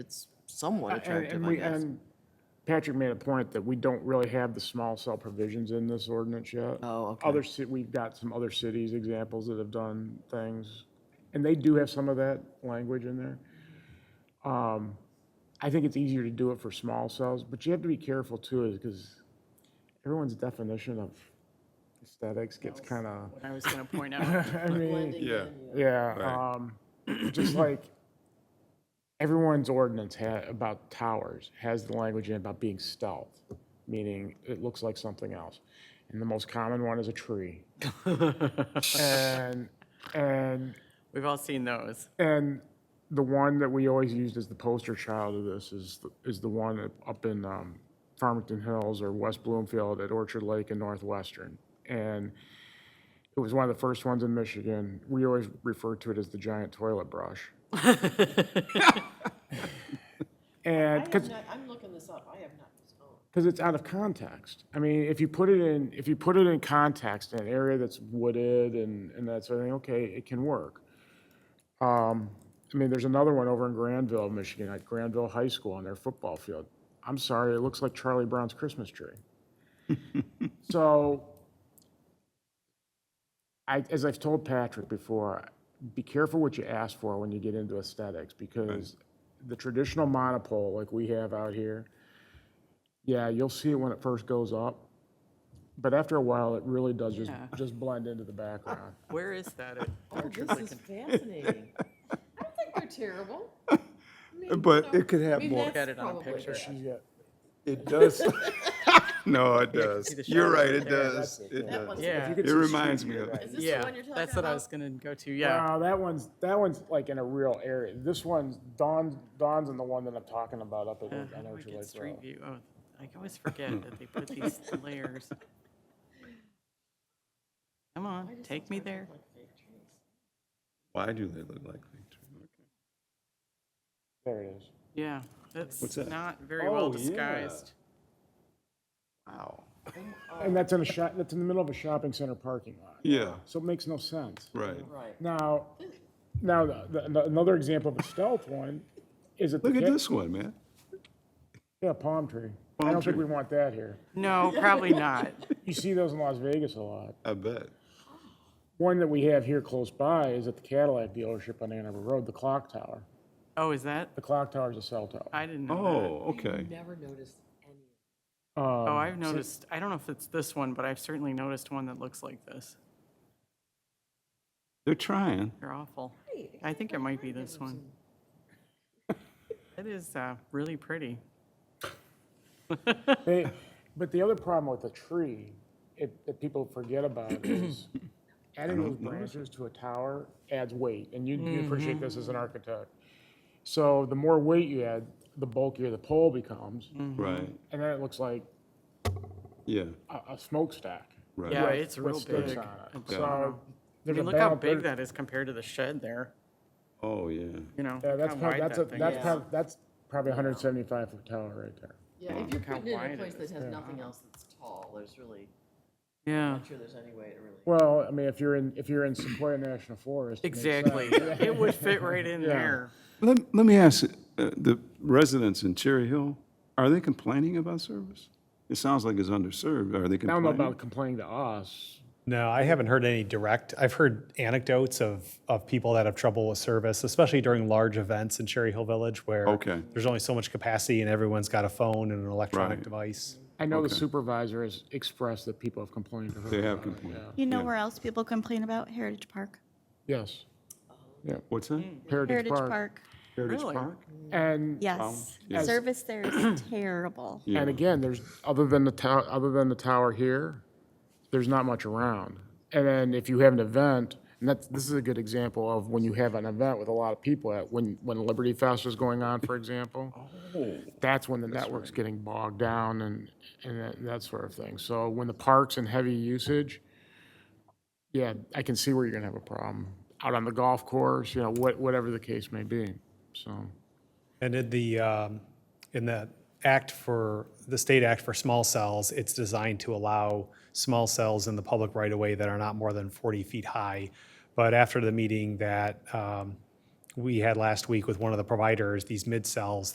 it's somewhat And- Uh, attractive, er, And I we, guess. and Patrick made a point that we don't really have the small cell provisions in this ordinance yet. Oh, okay. Other, ci- we've got some other cities examples that have done things, and they do have some of that language in there. Um, I think it's easier to do it for small cells, but you have to be careful too, is because everyone's definition of aesthetics gets kind of, I was going to point out, I mean. Yeah. Yeah, Right. um, just like everyone's ordinance ha- about towers has the language in it about being stealth, meaning it looks like something else. And the most common one is a tree. And, and, we've all seen those. and the one that we always used as the poster child of this is, the- is the one up- up in, um, Farmington Hills or West Bloomfield at Orchard Lake and Northwestern. And it was one of the first ones in Michigan. We always referred to it as the giant toilet brush. And, because, I'm looking this up, I have not, because it's out of context. I mean, if you put it in, if you put it in context, in an area that's wooded and, and that sort of thing, okay, it can work. Um, I mean, there's another one over in Granville, Michigan, at Granville High School on their football field. I'm sorry, it looks like Charlie Brown's Christmas tree. So, I, as I've told Patrick before, be careful what you ask for when you get into aesthetics, because the traditional monopole like we have out here, yeah, you'll see it when it first goes up, but after a while, it really does just, Yeah. just blend into the background. Where is that? at? oh, this is fascinating. I don't think they're terrible. But it could have Maybe more. that's Got it on probably- picture. She's got- It does. No, it does. the You're shadow right, over it there, does. It That one's- does. Yeah. You It can It see reminds she's me got of that. Is this the Yeah, one you're talking about? that's what I was going to go to. Yeah. Wow, that one's, that one's like in a real area. This one's, Dawn, Dawn's in the one that I'm talking about up at, How on do Uh-huh. we Orchard get Lake Street Road. view. Oh, I always forget that they put these layers. Come on, take me there. Why do they look like fig trees? There it is. Yeah, that's What's that? not very well Oh, yeah. disguised. Wow. And that's in a shop, that's in the middle of a shopping center parking lot, Yeah, so it makes no sense. right. Right. Now, now, the- the- another example of a stealth one is at the. Look at ca- this one, man. Yeah, palm tree. I Palm don't think we tree. want that here. No, probably not. You see those in Las Vegas a lot. I bet. One that we have here close by is at the Cadillac dealership on Ann Arbor Road, the clock tower. Oh, is that? The clock tower is a cell tower. I didn't know that. Oh, okay. Never noticed any. Uh, Oh, I've noticed, I don't know if it's this one, but I've certainly noticed one that looks like this. They're trying. They're awful. I think it might be this one. It is uh, really pretty. They, but the other problem with the tree, it, that people forget about is adding those branches to a tower adds weight, and you, you appreciate Mm-hmm. this as an architect. So the more weight you add, the bulkier the pole becomes, Mm. and Right. then it looks like Yeah, a, a smokestack. right. Yeah, with- it's with real sticks big. on it. Yeah. So I there's a mean, look how balance- big there- that is compared to the shed there, Oh, yeah. you know? Yeah, that's how prob- wide that's that a, thing that's is. prob- that's probably a hundred and seventy-five foot tower right there. Yeah, if you're Look how putting it wide in a it place that is. has nothing else that's tall, there's really, Yeah, I'm sure there's any way to really. Well, I mean, if you're in, if you're in Sequoia National Forest. it makes sense. exactly. It would fit right in there. Let, let me ask, uh, the residents in Cherry Hill, are they complaining about service? It sounds like it's underserved. Are they I don't know complaining? about complaining to us. No, I haven't heard any direct. I've heard anecdotes of, of people that have trouble with service, especially during large events in Cherry Hill Village where Okay. there's only so much capacity and everyone's got a phone and an electronic Right. device. I know the supervisor has expressed that people have complained to her. They about have it, complained. yeah. You know where else people complain about? Heritage Park. Yes, What's that? Heritage Heritage Park. Park, Heritage Really? Park? And, yes. yeah. Service there is terrible. Yeah. and again, there's, other than the tower, other than the tower here, there's not much around. And then if you have an event, and that's, this is a good example of when you have an event with a lot of people at, when, when Liberty Fest is going on, for example. That's when the network's getting bogged down and, and that, that sort of thing. So when the park's in heavy usage, yeah, I can see where you're gonna have a problem. Out on the golf course, you know, what, whatever the case may be, so. And in the, um, in the act for, the state act for small cells, it's designed to allow small cells in the public right of way that are not more than 40 feet high. But after the meeting that um, we had last week with one of the providers, these mid cells